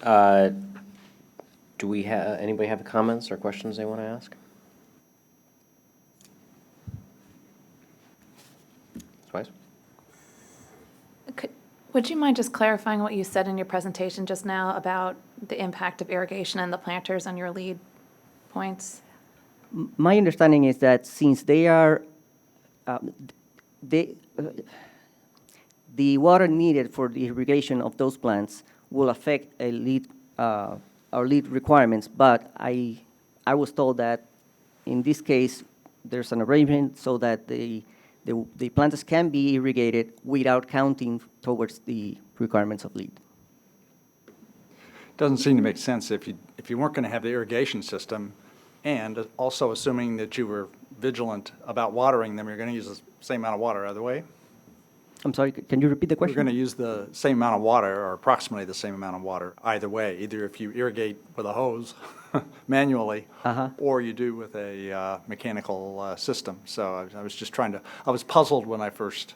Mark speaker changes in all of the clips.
Speaker 1: Uh, Do we have, anybody have comments or questions they want to ask? Twice?
Speaker 2: Could- Would you mind just clarifying what you said in your presentation just now about the impact of irrigation and the planters on your lead points?
Speaker 3: My understanding is that since they are, um, they, uh, the water needed for the irrigation of those plants will affect a lead, uh, our lead requirements, but I, I was told that in this case, there's an arrangement so that the, the, the plants can be irrigated without counting towards the requirements of lead.
Speaker 4: Doesn't seem to make sense if you, if you weren't going to have the irrigation system, and also assuming that you were vigilant about watering them, you're going to use the same amount of water either way.
Speaker 3: I'm sorry, c- can you repeat the
Speaker 4: You're
Speaker 3: question?
Speaker 4: going to use the same amount of water, or approximately the same amount of water either way, either if you irrigate with a hose manually,
Speaker 3: Uh-huh.
Speaker 4: or you do with a uh, mechanical uh, system. So I was- I was just trying to, I was puzzled when I first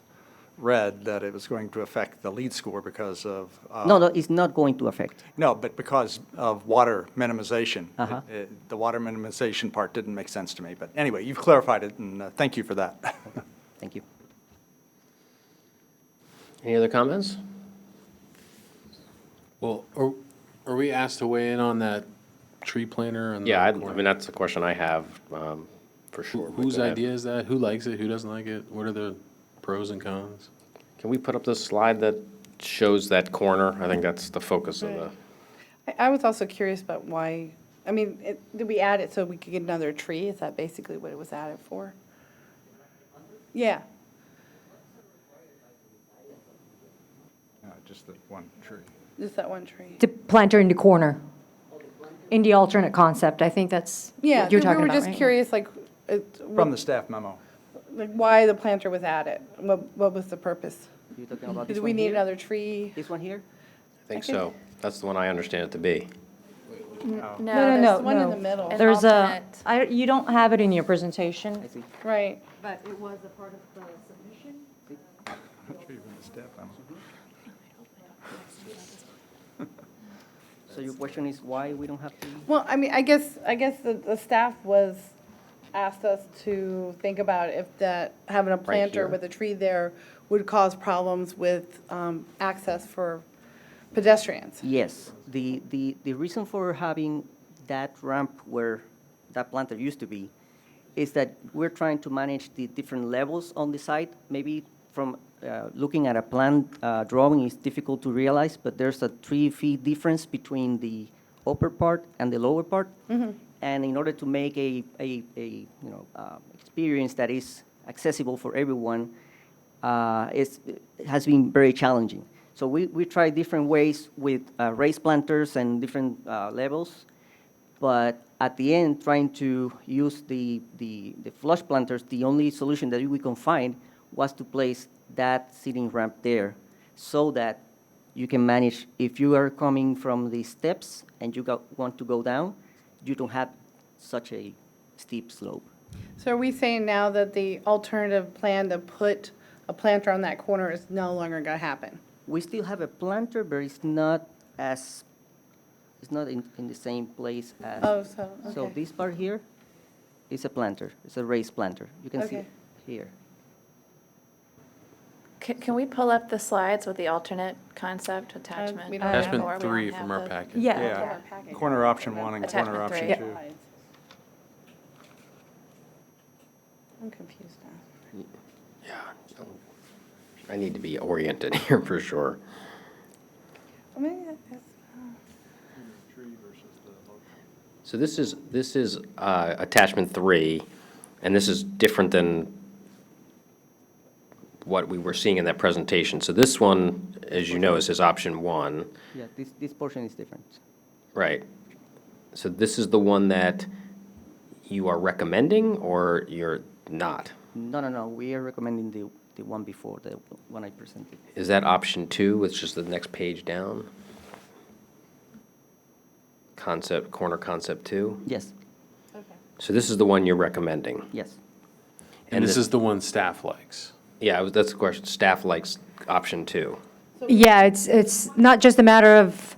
Speaker 4: read that it was going to affect the lead score because of. uh,
Speaker 3: No, no, it's not going to affect.
Speaker 4: No, but because of water minimization.
Speaker 3: Uh-huh.
Speaker 4: It- it- The water minimization part didn't make sense to me, but anyway, you've clarified it, and uh, thank you for that.
Speaker 3: Thank you.
Speaker 1: Any other comments?
Speaker 5: Well, are, are we asked to weigh in on that tree planter and? the
Speaker 1: Yeah, I I
Speaker 5: corn-
Speaker 1: mean, that's a question I have, um, for
Speaker 5: Who-
Speaker 1: sure. but
Speaker 5: Whose
Speaker 1: go ahead.
Speaker 5: idea is that? Who likes it? Who doesn't like it? What are the pros and cons?
Speaker 1: Can we put up the slide that shows that corner? I think that's the focus of the,
Speaker 6: Right. I, I was also curious about why, I mean, it, did we add it so we could get another tree? Is that basically what it was added for? Yeah,
Speaker 4: Just the one tree.
Speaker 6: just that one tree.
Speaker 7: to planter in the corner, in the alternate concept. I think that's
Speaker 6: Yeah,
Speaker 7: what you're
Speaker 6: we
Speaker 7: talking
Speaker 6: were
Speaker 7: about,
Speaker 6: just
Speaker 7: right?
Speaker 6: curious, like, it-
Speaker 4: From the staff memo.
Speaker 6: like why the planter was added? What, what was the purpose?
Speaker 3: You're talking about this
Speaker 6: Did
Speaker 3: one
Speaker 6: we need
Speaker 3: here?
Speaker 6: another tree?
Speaker 3: This one here?
Speaker 1: I think
Speaker 6: I think-
Speaker 1: so. That's the one I understand it to be.
Speaker 5: Oh.
Speaker 6: No, no,
Speaker 2: there's
Speaker 6: no, one in the middle.
Speaker 2: an
Speaker 7: There's a,
Speaker 2: alternate.
Speaker 7: I, you don't have it in your presentation.
Speaker 6: Right.
Speaker 7: But it was a part of the submission?
Speaker 3: So your question is why we don't have to?
Speaker 6: Well, I mean, I guess, I guess the, the staff was, asked us to think about if that, having a planter
Speaker 1: here.
Speaker 6: with a tree there would cause problems with, um, access for pedestrians.
Speaker 3: Yes, the, the, the reason for having that ramp where that planter used to be is that we're trying to manage the different levels on the site. Maybe from uh, looking at a plan uh, drawing is difficult to realize, but there's a three feet difference between the upper part and the lower part. And in order to make a, a, a you know uh, experience that is accessible for everyone, uh, it's, it has been very challenging. So we, we tried different ways with uh, raised planters and different uh, levels, but at the end, trying to use the, the, the flush planters, the only solution that we can find was to place that seating ramp there so that you can manage, if you are coming from the steps and you go, want to go down, you don't have such a steep slope.
Speaker 6: So are we saying now that the alternative plan to put a planter on that corner is no longer gonna happen?
Speaker 3: We still have a planter, but it's not as, it's not in, in the same place as.
Speaker 6: Oh, so,
Speaker 3: So
Speaker 6: okay.
Speaker 3: this part here is a planter, it's a raised planter. You can see
Speaker 6: Okay.
Speaker 3: it here.
Speaker 2: Can, can we pull up the slides with the alternate concept attachment?
Speaker 6: Uh, we don't have
Speaker 5: That's
Speaker 6: Yeah,
Speaker 5: been
Speaker 2: or we don't
Speaker 5: three
Speaker 2: have
Speaker 5: from our
Speaker 2: the-
Speaker 5: packet.
Speaker 7: Yeah.
Speaker 4: Yeah, corner option one and corner
Speaker 2: Attachment three.
Speaker 4: option two.
Speaker 6: I'm confused now.
Speaker 1: I need to be oriented here for sure.
Speaker 6: I mean, that's- uh.
Speaker 1: So this is, this is uh, attachment three, and this is different than what we were seeing in that presentation. So this one, as you know, is his option one,
Speaker 3: Yeah, this, this portion is different.
Speaker 1: right? So this is the one that you are recommending or you're not?
Speaker 3: No, no, no, we are recommending the, the one before, the one I presented.
Speaker 1: Is that option two, which is the next page down? Concept, corner concept two?
Speaker 3: Yes,
Speaker 1: So this is the one you're recommending?
Speaker 3: yes.
Speaker 5: And this
Speaker 1: the-
Speaker 5: is the one staff likes.
Speaker 1: Yeah, I was- that's the question. Staff likes option two.
Speaker 7: Yeah, it's, it's not just a matter of